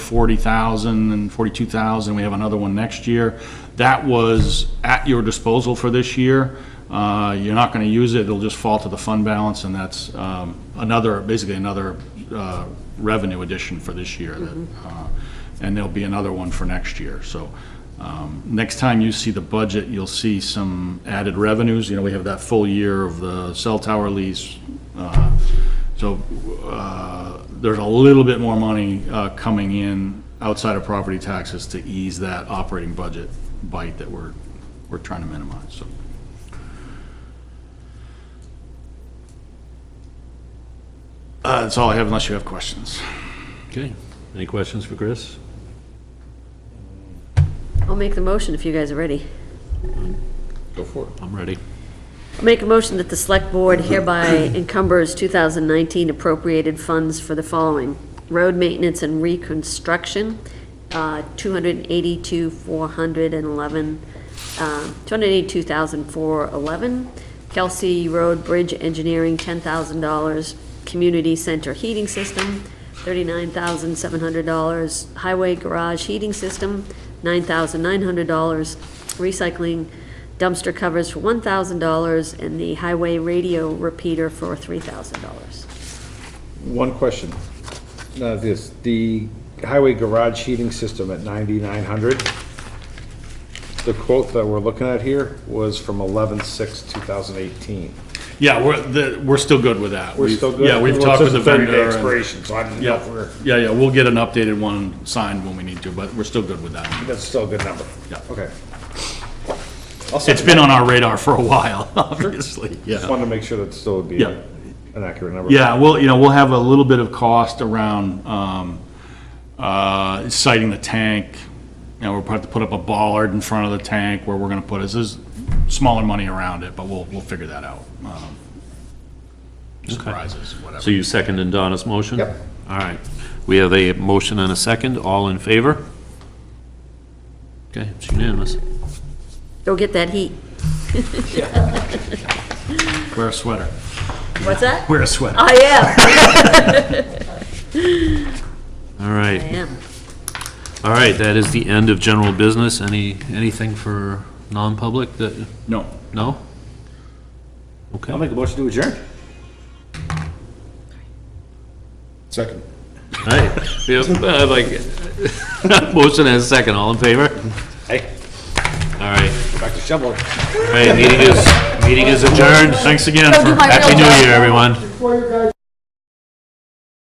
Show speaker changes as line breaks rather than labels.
40,000 and 42,000, we have another one next year. That was at your disposal for this year. Uh, You're not going to use it, it'll just fall to the fund balance, and that's um, another, basically another uh, revenue addition for this year. that, uh, And there'll be another one for next year, so. um, Next time you see the budget, you'll see some added revenues. You know, we have that full year of the cell tower lease, uh, so uh, there's a little bit more money uh, coming in outside of property taxes to ease that operating budget bite that we're, we're trying to minimize, so. Uh, That's all I have unless you have questions.
Okay, any questions for Chris?
I'll make the motion if you guys are ready.
Go for it. I'm ready.
I'll Make a motion that the Select Board hereby encumbers 2019 appropriated funds for the following: road maintenance and reconstruction, uh, 282,411, uh, 282,411; Kelsey Road Bridge Engineering, $10,000; Community Center Heating System, $39,700; Highway Garage Heating System, $9,900; Recycling dumpster covers for one thousand dollars and the highway radio repeater for three thousand dollars.
One question, uh, this, the highway garage heating system at ninety-nine hundred, the quote that we're looking at here was from eleven-six, two thousand eighteen.
Yeah, we're, the- we're still good with that.
We're
We've-
still good?
Yeah, we've
Well, it
talked with
says
the
a 30-day
vendor. and-
expiration, so I didn't know if
Yeah,
we're,
yeah, yeah, we'll get an updated one signed when we need to, but we're still good with that.
that's still a good number.
Yeah.
Okay.
It's been on our radar for a while, obviously, yeah.
Just wanted to make sure that still would be
Yeah.
an accurate number.
Yeah, well, you know, we'll have a little bit of cost around um, uh, siting the tank. You know, we're going to put up a bollard in front of the tank where we're going to put it. There's smaller money around it, but we'll, we'll figure that out. Um, Surprises,
So
whatever.
you seconded Donna's motion?
Yep.
All right, we have a motion and a second, all in favor? Okay, it's unanimous.
Go get that heat.
Wear a sweater.
What's that?
Wear a sweater.
I am,
All
I
right,
am.
all right, that is the end of general business. Any, anything for non-public that,
No.
no? Okay.
I'll make a motion to adjourn.
Second.
Right, yep, I like, it. motion and a second, all in favor?
Hey,
All right,
back to shoveling.
all right, meeting is, meeting is adjourned.
Thanks again for.
Happy New Year, everyone.